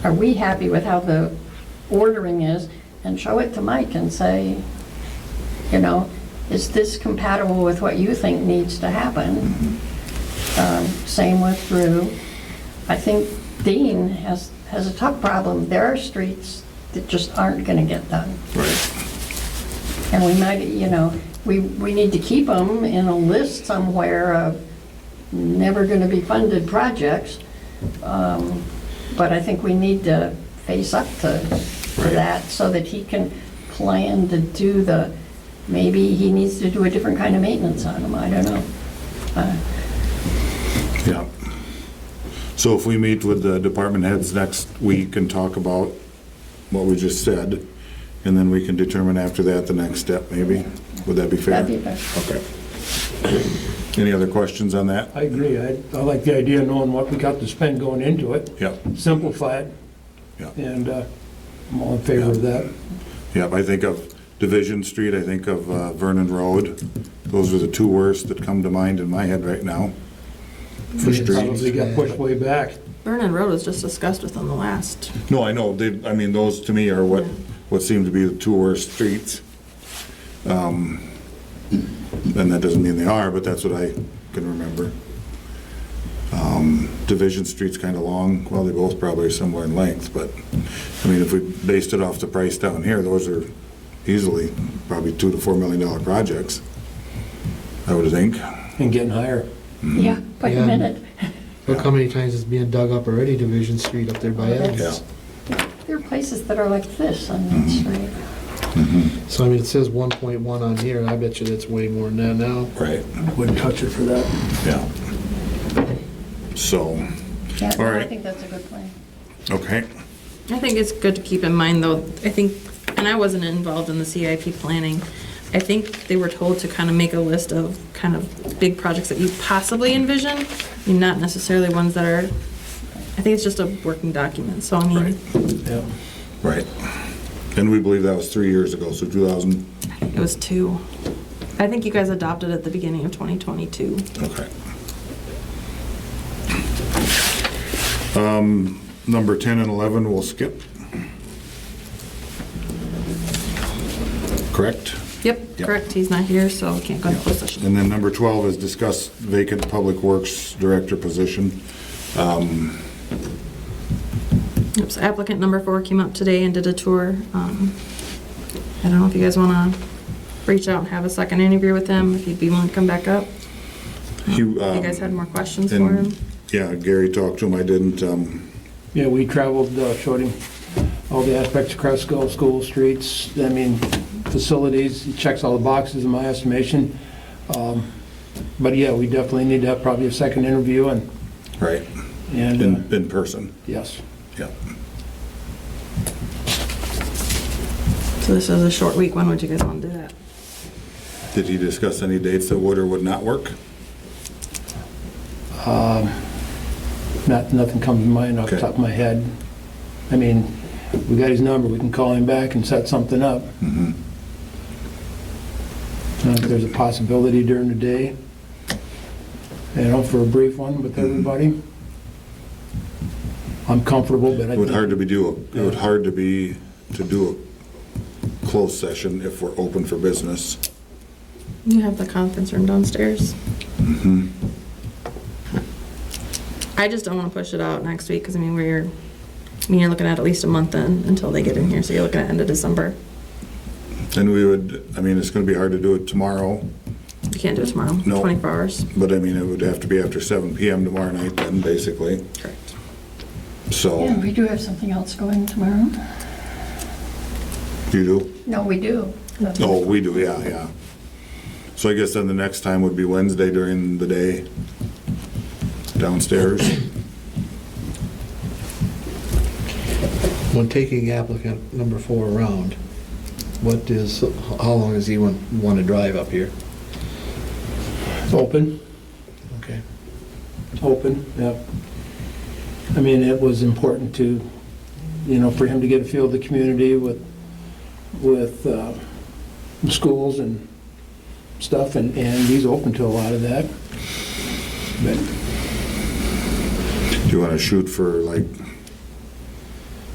are we happy with how the ordering is? And show it to Mike and say, you know, is this compatible with what you think needs to happen? Um, Same with Rue. I think Dean has, has a tough problem. There are streets that just aren't going to get done. Right. And we might, you know, we, we need to keep them in a list somewhere of never going to be funded projects. Um, But I think we need to face up to to Right. that so that he can plan to do the, maybe he needs to do a different kind of maintenance on them, I don't know. Uh, Yeah. So if we meet with the department heads next week and talk about what we just said, and then we can determine after that the next step, maybe? Would that be fair? That'd be best. Okay. Any other questions on that? I agree. I, I like the idea of knowing what we got to spend going into it, Yep, simplify it, yep, and uh, I'm all in favor of that. yep. I think of Division Street, I think of uh, Vernon Road. Those are the two worst that come to mind in my head right now. For It Probably streets. got pushed way back. Vernon Road was just discussed within the last. No, I know, they, I mean, those to me are what, what seem to be the two worst streets. Um, And that doesn't mean they are, but that's what I can remember. Um, Division Street's kind of long, well, they both probably are similar in length, but, I mean, if we based it off the price down here, those are easily probably two to four million dollar projects, I would think. And getting higher. Mm-hmm. Yeah, wait a Yeah. minute, Look how many times it's being dug up already, Division Street up there by Yeah. Evans. there are places that are like this on Mm-hmm. that street. So I mean, it says one point one on here, and I bet you that's way more than that now. Right. Wouldn't touch it for that. Yeah. So, Yeah, All no, I right. think that's a good plan. okay, I think it's good to keep in mind, though, I think, and I wasn't involved in the CIP planning. I think they were told to kind of make a list of kind of big projects that you possibly envision, and not necessarily ones that are, I think it's just a working document, so I Right. mean, Yeah. right. And we believe that was three years ago, so 2000, it was two. I think you guys adopted at the beginning of 2022. Okay. Um, Number 10 and 11 we'll skip. Correct? Yep, Yep. correct, he's not here, so we can't go into closed session. And then number 12 is discuss vacant public works director position. Yep, so applicant number four came up today and did a tour. Um, I don't know if you guys want to reach out and have a second interview with him, if he'd be willing to come back up. You um, If Uh-huh. you guys had more questions for him. Yeah, Gary talked to him, I didn't, um, Yeah, we traveled, uh, showed him all the aspects across school, school, streets, I mean, facilities, He checks all the boxes in my estimation. Um, But yeah, we definitely need to have probably a second interview and, right, and, uh, in, in person, yes. yeah. So this is a short week, when would you guys want to do that? Did he discuss any dates that would or would not work? Um, Not, nothing comes to mind off the top of my head. I mean, we got his number, we can call him back and set something up. Mhm. Uh, If there's a possibility during the day, you know, for a brief one with everybody. I'm comfortable, but I It would hard think to be do, it would hard to be, to do a closed session if we're open for business. You have the conference room downstairs. I just don't want to push it out next week, because I mean, we're, I mean, you're looking at at least a month in, until they get in here, so you're looking at end of December. And we would, I mean, it's gonna be hard to do it tomorrow, You can't do it tomorrow, No. 24 hours. but I mean, it would have to be after seven PM tomorrow night then, basically, Correct. Yeah, so. we do have something else going tomorrow. You do? No, we do. Oh, we do, yeah, yeah. So I guess then the next time would be Wednesday during the day downstairs. When taking applicant number four around, what is, how long does he want, want to drive up here? it's open, Okay. open, yeah. I mean, it was important to, you know, for him to get a feel of the community with, with uh, schools and stuff, and, and he's open to a lot of that. But Do you wanna shoot for like